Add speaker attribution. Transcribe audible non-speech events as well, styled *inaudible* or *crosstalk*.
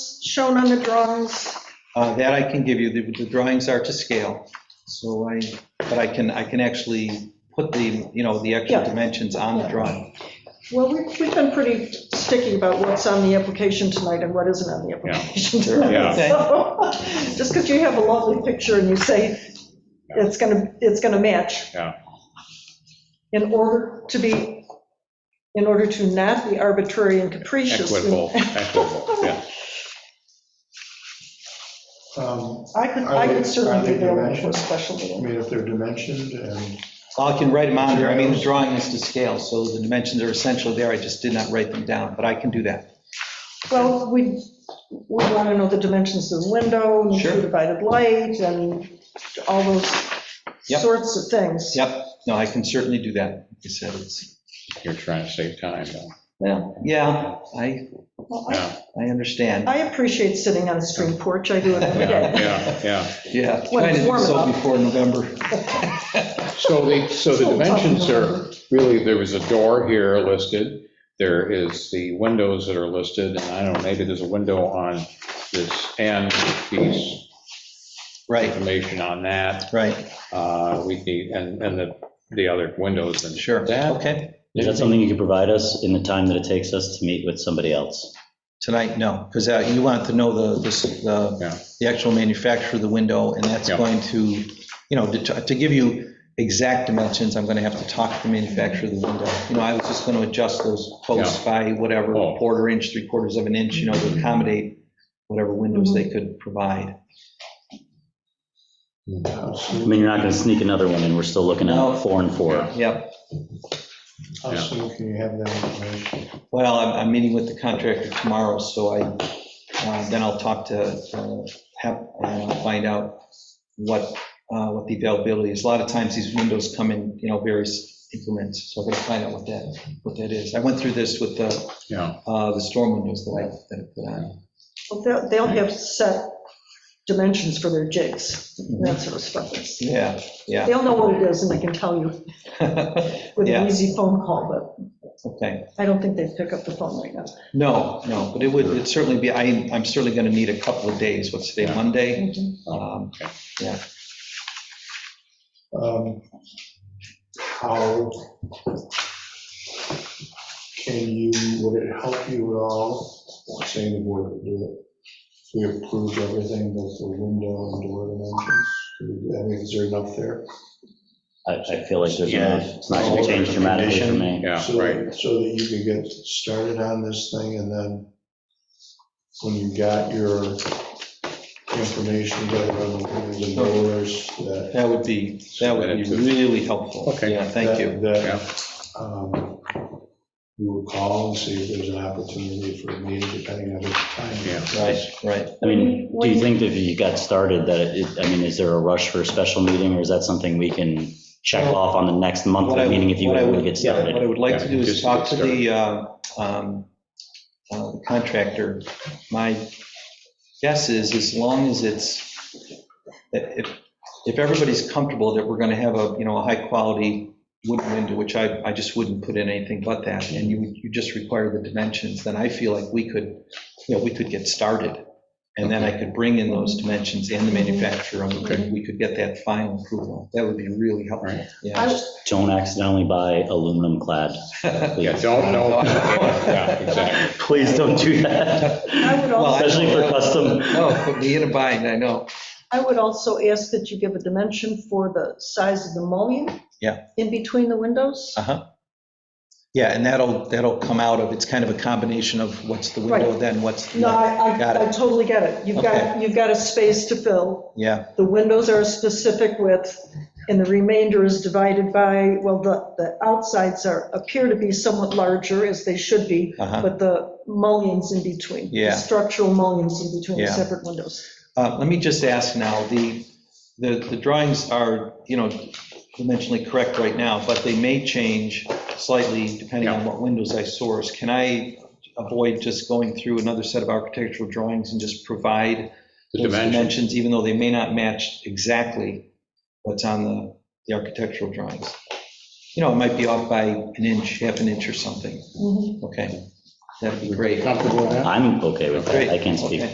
Speaker 1: shown on the drawings?
Speaker 2: Uh, That I can give you, The- the drawings are to scale, so I, but I can, I can actually put the, you know, the actual
Speaker 1: Yeah.
Speaker 2: dimensions on the drawing.
Speaker 1: Well, we- we've been pretty sticky about what's on the application tonight and what isn't on the application
Speaker 3: Yeah.
Speaker 1: tonight. So, *laughs* Just because you have a lovely picture and you say it's going to, it's going to match.
Speaker 3: Yeah.
Speaker 1: In order to be, in order to not be arbitrary and capricious. we-
Speaker 3: Equitable, equitable, yeah.
Speaker 4: Um,
Speaker 1: I could,
Speaker 4: Are
Speaker 1: I
Speaker 4: they-
Speaker 1: could
Speaker 4: are
Speaker 1: certainly
Speaker 4: they
Speaker 1: be there for a
Speaker 4: dimensioned?
Speaker 1: special meeting.
Speaker 4: I mean, if they're dimensioned and,
Speaker 2: I can write them on there, I mean, the drawing is to scale, so the dimensions are essentially there, I just did not write them down, but I can do that.
Speaker 1: Well, we, we want to know the dimensions of the window, and
Speaker 2: Sure.
Speaker 1: the divided light, and all those
Speaker 2: Yep.
Speaker 1: sorts of things.
Speaker 2: Yep, no, I can certainly do that, like you said, it's,
Speaker 3: You're trying to save time, though.
Speaker 2: well, yeah, I,
Speaker 1: Well, I-
Speaker 3: Yeah,
Speaker 2: I understand,
Speaker 1: I appreciate sitting on the street porch, I do it every
Speaker 2: *laughs*
Speaker 3: yeah,
Speaker 1: day.
Speaker 3: yeah, yeah.
Speaker 2: yeah.
Speaker 1: When
Speaker 2: Trying
Speaker 1: it's
Speaker 2: to do
Speaker 1: warm
Speaker 2: so
Speaker 1: enough.
Speaker 2: before November.
Speaker 3: So the, so
Speaker 1: So
Speaker 3: the
Speaker 1: tough.
Speaker 3: dimensions are, really, there was a door here listed, there is the windows that are listed, and I don't know, maybe there's a window on this end piece,
Speaker 2: Right,
Speaker 3: information on that,
Speaker 2: right,
Speaker 3: uh, we need, and, and the, the other windows and.
Speaker 2: sure,
Speaker 3: That-
Speaker 2: okay.
Speaker 5: Is that something you could provide us in the time that it takes us to meet with somebody else?
Speaker 2: Tonight, no, because you want to know the, this-
Speaker 3: Yeah.
Speaker 2: the, the actual manufacturer of the window, and that's
Speaker 3: Yeah.
Speaker 2: going to, you know, det- to give you exact dimensions, I'm going to have to talk to the manufacturer of the window. You know, I was just going to adjust those posts by whatever,
Speaker 3: Oh.
Speaker 2: quarter inch, three quarters of an inch, you know, to accommodate whatever windows they could provide.
Speaker 4: uh,
Speaker 5: I mean, you're not going to sneak another one in, we're still looking
Speaker 2: No.
Speaker 5: at four and four.
Speaker 2: Yep,
Speaker 4: how soon can you have that information?
Speaker 2: well, I'm, I'm meeting with the contractor tomorrow, so I, uh, then I'll talk to, uh, Hep, and I'll find out what, uh, what the availability is. A lot of times these windows come in, you know, various increments, so I'm gonna find out what that, what that is. I went through this with the,
Speaker 3: Yeah,
Speaker 2: uh, the storm windows that I, that I put on.
Speaker 1: Well, they'll- They'll have set dimensions for their jigs, and that sort of stuff.
Speaker 2: Yeah, yeah.
Speaker 1: They'll know what it is, and they can tell you with
Speaker 2: Yeah. *laughs*
Speaker 1: an easy phone call,
Speaker 2: Okay,
Speaker 1: but I don't think they'd pick up the phone right now.
Speaker 2: no, no, but it would, it'd certainly be, I, I'm certainly gonna need a couple of days. What's today,
Speaker 3: Yeah.
Speaker 2: Monday?
Speaker 1: Mhm.
Speaker 2: Um,
Speaker 4: Um, How can you, would it help you at all, I'm saying the board would do it, if we approved everything with the window and door dimensions? Could we- I mean, is there enough there?
Speaker 5: I, I feel like there's,
Speaker 3: Yeah.
Speaker 5: not- it's not going to change dramatically for me.
Speaker 3: yeah,
Speaker 4: So-
Speaker 3: right.
Speaker 4: So that you could get started on this thing, and then when you got your information, you got it on the windows and doors, that.
Speaker 2: That would be, that would be really helpful.
Speaker 3: Okay.
Speaker 2: Yeah, thank you.
Speaker 4: That, um, you would call and see if there's an opportunity for a meeting, depending on the time.
Speaker 3: Yeah.
Speaker 2: Right, right.
Speaker 5: I mean, do you think that if you got started, that, it- I mean, is there a rush for a special meeting, or is that something we can check off on the next
Speaker 2: What I
Speaker 5: monthly
Speaker 2: would-
Speaker 5: meeting if you
Speaker 2: what I
Speaker 5: want to
Speaker 2: would-
Speaker 5: get
Speaker 2: yeah,
Speaker 5: started?
Speaker 2: What I would like to
Speaker 3: Yeah,
Speaker 2: do is
Speaker 3: just
Speaker 2: talk to
Speaker 3: get
Speaker 2: the uh, um, uh, contractor. My guess is, as long as it's, that if, if everybody's comfortable that we're going to have a, you know, a high-quality wooden window, which I, I just wouldn't put in anything but that, and you, you just require the dimensions, then I feel like we could, you know, we could get started. And then I could bring in those dimensions and the manufacturer, and we could get that final approval. That would be really helpful.
Speaker 3: Right.
Speaker 2: Yeah.
Speaker 1: I-
Speaker 5: Don't accidentally buy aluminum clad.
Speaker 2: *laughs*
Speaker 3: Yeah, don't know. Yeah, exactly.
Speaker 5: *laughs* Please don't do that,
Speaker 1: I would
Speaker 2: Well, I-
Speaker 1: also,
Speaker 5: especially for custom.
Speaker 2: No, put me in a bind, I know.
Speaker 1: I would also ask that you give a dimension for the size of the mullion.
Speaker 2: Yeah.
Speaker 1: In between the windows.
Speaker 2: Uh-huh. Yeah, and that'll, that'll come out of, it's kind of a combination of what's the window,
Speaker 1: Right.
Speaker 2: then what's,
Speaker 1: No,
Speaker 2: the
Speaker 1: I,
Speaker 2: Got
Speaker 1: I
Speaker 2: it.
Speaker 1: I totally get it. You've got, you've got a space to fill.
Speaker 2: yeah,
Speaker 1: The windows are a specific width, and the remainder is divided by, well, the, the outsides are, appear to be somewhat larger, as they should be,
Speaker 2: uh-huh.
Speaker 1: but the mullions in between. the
Speaker 2: Yeah.
Speaker 1: Structural mullions in between the
Speaker 2: Yeah.
Speaker 1: separate windows.
Speaker 2: Uh, Let me just ask now, the, the the drawings are, you know, dimensionally correct right now, but they may change slightly depending on what windows I source. Can I avoid just going through another set of architectural drawings and just provide
Speaker 3: The
Speaker 2: those
Speaker 3: dimension,
Speaker 2: dimensions, even though they may not match exactly what's on the, the architectural drawings. You know, it might be off by an inch, half an inch or something,
Speaker 1: Mhm.
Speaker 2: okay? That'd be great.
Speaker 3: comfortable with that?
Speaker 5: I'm okay with that, I can't speak
Speaker 2: Okay.